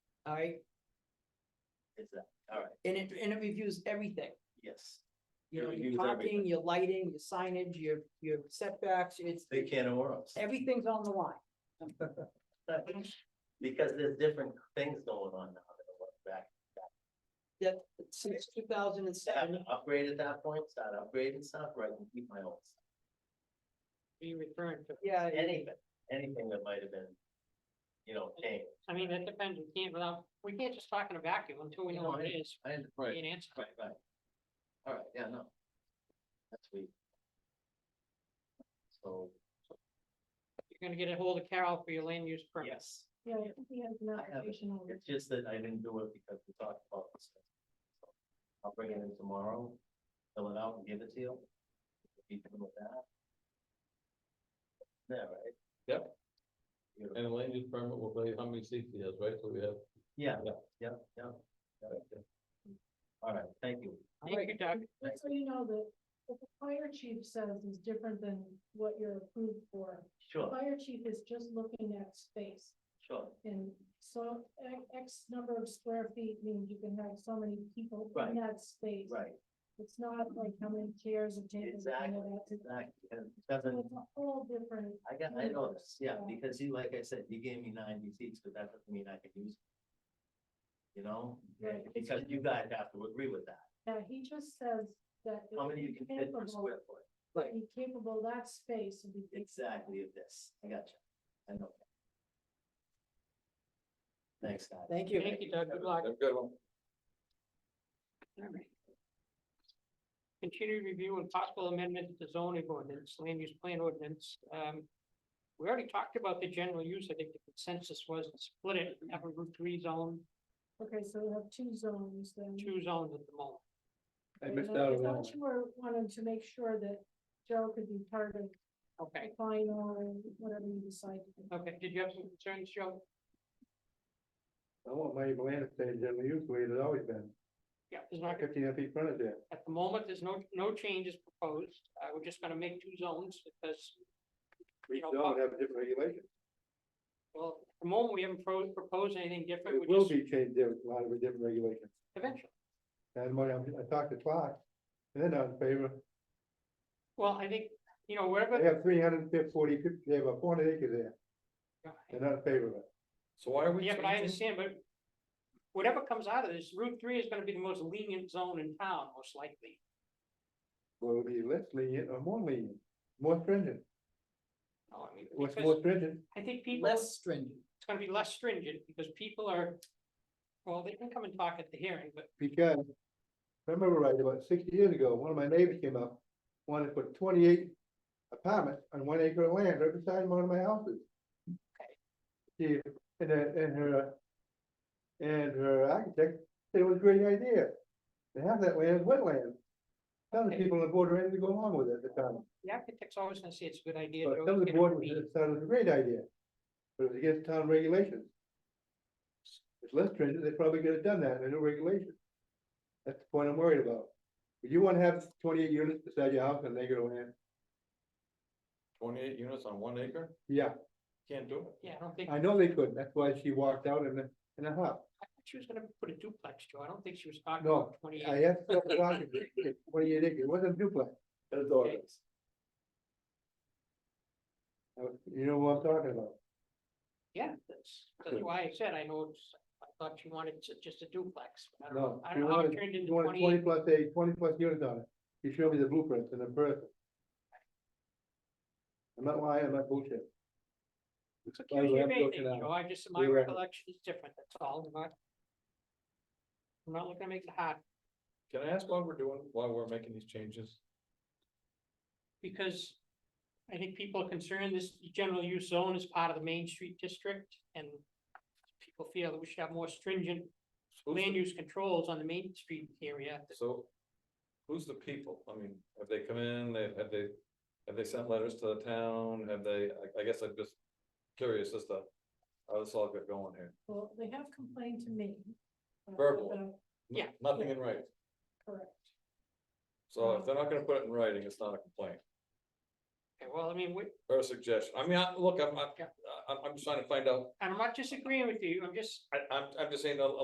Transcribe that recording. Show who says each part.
Speaker 1: all right?
Speaker 2: Is that, all right,
Speaker 1: And it, and it reviews everything.
Speaker 2: yes,
Speaker 1: You know,
Speaker 2: It
Speaker 1: your
Speaker 2: reviews
Speaker 1: parking,
Speaker 2: everything.
Speaker 1: your lighting, your signage, your, your setbacks, it's,
Speaker 2: they can not worms,
Speaker 1: everything's on the line.
Speaker 2: because there's different things going on now that are back.
Speaker 1: That, since two thousand and
Speaker 2: Have to
Speaker 1: seven,
Speaker 2: upgrade at that point, start upgrading stuff, right, and keep my own, stuff.
Speaker 3: Are you referring to,
Speaker 1: yeah,
Speaker 2: anything, anything that might have been, you know, changed.
Speaker 3: I mean, that depends, we can't without, we can't just talk in a vacuum until we know what it is,
Speaker 2: I understand.
Speaker 3: we can't answer.
Speaker 2: Right, right. All right, yeah, no. That's sweet. So,
Speaker 3: You're gonna get a hold of Carol for your land use permit.
Speaker 2: yes,
Speaker 4: Yeah, I think he has an
Speaker 2: I have it.
Speaker 4: application on
Speaker 2: it's just that I didn't do it because we talked about this. So, I'll bring it in tomorrow, fill it out and give it to you. If you can with that. There, right?
Speaker 5: Yep.
Speaker 2: Beautiful.
Speaker 5: And the land use permit will tell you how many seats he has, right? So we have.
Speaker 2: Yeah,
Speaker 5: Yeah.
Speaker 2: yeah, yeah. All right, thank you.
Speaker 3: Thank you, Doug.
Speaker 4: Just so you know that what the fire chief says is different than what you're approved for. The
Speaker 2: Sure,
Speaker 4: Fire chief is just looking at space
Speaker 2: sure.
Speaker 4: and so e- X number of square feet means you can have so many people
Speaker 2: Right.
Speaker 4: in that space.
Speaker 2: Right,
Speaker 4: It's not like how many chairs and tables. and all that. It's
Speaker 2: exactly. And it doesn't,
Speaker 4: it's a whole different,
Speaker 2: I got, I noticed, yeah,
Speaker 4: Yeah.
Speaker 2: because you, like I said, you gave me ninety seats, but that doesn't mean I can use. it. You know,
Speaker 4: Right.
Speaker 2: And because you guys have to agree with that,
Speaker 4: yeah, uh, he just says that.
Speaker 2: how
Speaker 4: if
Speaker 2: many you can
Speaker 4: you're
Speaker 2: fit per
Speaker 4: capable-
Speaker 2: square foot,
Speaker 1: Right.
Speaker 4: Be capable, that space would be.
Speaker 2: exactly of this, I got you, I know. Thanks, guys.
Speaker 1: thank you.
Speaker 3: Thank you, Doug, good luck.
Speaker 5: Have a good one.
Speaker 3: Continued review and possible amendment to the zoning ordinance, land use plan ordinance. Um, we already talked about the general use, I think the consensus was to split it, have a Route Three zone,
Speaker 4: Okay, so we have two zones then.
Speaker 3: two zones at the moment.
Speaker 5: I
Speaker 4: And
Speaker 5: missed
Speaker 4: I-
Speaker 5: out
Speaker 4: I
Speaker 5: on that
Speaker 4: thought you were wanting to make sure that Joe could be part of
Speaker 3: Okay,
Speaker 4: the final, whatever you decide. to do.
Speaker 3: okay, did you have some concerns, Joe?
Speaker 6: I want my land to stay generally used the way it has always been,
Speaker 3: Yeah, there's not gonna
Speaker 6: fifteen feet frontage there.
Speaker 3: At the moment, there's no, no changes proposed. Uh, we're just gonna make two zones because.
Speaker 6: Each
Speaker 3: No
Speaker 6: zone have different regulations.
Speaker 3: Well, at the moment, we haven't pro- proposed anything different.
Speaker 6: It
Speaker 3: We're
Speaker 6: will
Speaker 3: just
Speaker 6: be changed, there a lot of different regulations.
Speaker 3: Eventually.
Speaker 6: And when I, I talked to Clark, and they're not in favor,
Speaker 3: Well, I think, you know,
Speaker 6: they
Speaker 3: wherever,
Speaker 6: have three hundred and fifty, forty, they have a four hundred acres there, they're not in favor of it.
Speaker 5: So why are we
Speaker 3: yeah, but I
Speaker 5: changing?
Speaker 3: understand, but whatever comes out of this, Route Three is gonna be the most lenient zone in town, most likely.
Speaker 6: Will it be less lenient or more lenient, more stringent,
Speaker 3: No, I mean,
Speaker 6: what's
Speaker 3: because
Speaker 6: more stringent?
Speaker 3: I think people,
Speaker 1: Less
Speaker 3: it's
Speaker 1: stringent.
Speaker 3: gonna be less stringent because people are, well, they can come and talk at the hearing, but
Speaker 6: because. If I remember right, about sixty years ago, one of my neighbors came up, wanted to put twenty-eight apartments on one acre of land right beside one of my houses. She, and her, and her. And her architect said it was a great idea, to have that land as wetland. Some of the
Speaker 3: Okay.
Speaker 6: people on the board were ready to go along with it at the time,
Speaker 3: the architect's always gonna say it's a good idea.
Speaker 6: but
Speaker 3: Joe,
Speaker 6: some of the
Speaker 3: get a
Speaker 6: board was,
Speaker 3: meeting.
Speaker 6: thought it was a great idea. But it was against town regulations. It's less stringent, they probably could have done that, there are no regulations. That's the point I'm worried about. If you wanna have twenty-eight units beside your house and they go in,
Speaker 5: Twenty-eight units on one acre?
Speaker 6: yeah,
Speaker 5: Can't do it.
Speaker 3: Yeah, I don't think, I
Speaker 6: I know they couldn't, that's why she walked out in the, in the house.
Speaker 3: thought she was gonna put a duplex, Joe. I don't think she was talking
Speaker 6: No,
Speaker 3: about twenty-eight.
Speaker 6: I asked her about it, it's twenty-eight acres, it wasn't duplex. That's all.
Speaker 3: Okay.
Speaker 6: You know what I'm talking about?
Speaker 3: Yeah, that's, that's why I said, I know, it's- I thought you wanted ju- just a duplex. but I don't know,
Speaker 6: No,
Speaker 3: I
Speaker 6: you
Speaker 3: don't know how it
Speaker 6: wanted-
Speaker 3: turned into
Speaker 6: You wanted twenty
Speaker 3: twenty,
Speaker 6: plus eight, twenty plus units on it. You showed me the blueprints and the birth. I'm not lying, I'm not bullshit.
Speaker 3: it's a
Speaker 6: By the way,
Speaker 3: curious
Speaker 6: I'm
Speaker 3: thing,
Speaker 6: joking
Speaker 3: Joe,
Speaker 6: now.
Speaker 3: I just, my
Speaker 6: You're right.
Speaker 3: recollection is different, that's all, I'm not. I'm not looking to make it hot,
Speaker 5: Can I ask why we're doing, why we're making these changes?
Speaker 3: because I think people are concerned this general use zone is part of the Main Street District, and people feel that we should have more stringent
Speaker 5: Who's the-
Speaker 3: land use controls on the Main Street area.
Speaker 5: So who's the people? I mean, have they come in? They, have they, have they sent letters to the town? Have they, I, I guess I'm just curious as to how this all got going here.
Speaker 4: Well, they have complained to me. uh,
Speaker 5: Verbal.
Speaker 4: about-
Speaker 5: N-
Speaker 3: Yeah.
Speaker 5: Nothing in writing.
Speaker 4: Correct.
Speaker 3: Mm-hmm.
Speaker 5: So if they're not gonna put it in writing, it's not a complaint.
Speaker 3: Okay, well, I mean, we,
Speaker 5: her suggestion. I mean, I, look, I'm, I'm,
Speaker 3: Yeah.
Speaker 5: I'm, I'm just trying to find out,
Speaker 3: I'm not disagreeing with you, I'm just
Speaker 5: I, I'm, I'm just saying, a- a